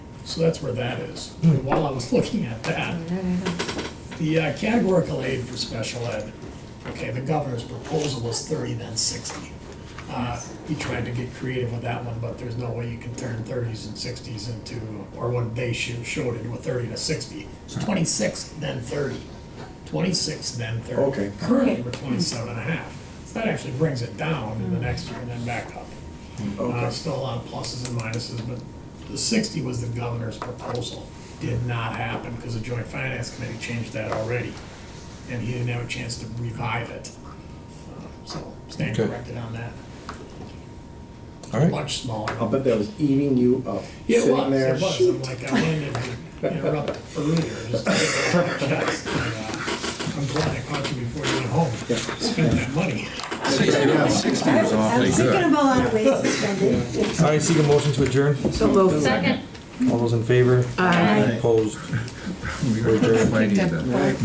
So that's where that is. And While I was looking at that, the uh, categorical aid for special ed, okay, the governor's proposal was thirty, then sixty. Uh, He tried to get creative with that one, but there's no way you can turn thirties and sixties into, or what they sho- showed it with thirty to sixty. It's twenty-six, then thirty. Twenty-six, then thirty. Okay. Currently, we're twenty-seven and a half. So that actually brings it down in the next year and then back up. Uh, Okay, Still a lot of pluses and minuses, but the sixty was the governor's proposal. Did not happen because the joint finance committee changed that already, and he didn't have a chance to revive it. Uh, So stand Okay. corrected on that. All right, Much smaller. I'll bet that was eating you up, Yeah, it sitting was, there. It was, I'm like, I wanted to interrupt earlier, just to get it off my chest. And, uh, I'm glad I caught you before you went home, spent that money. sixty was I awfully was thinking good. of a lot of ways to spend it. All right, seek a motion to adjourn. So moved. Second. All those in favor? Aye. Opposed? We're adjourned. Might need to-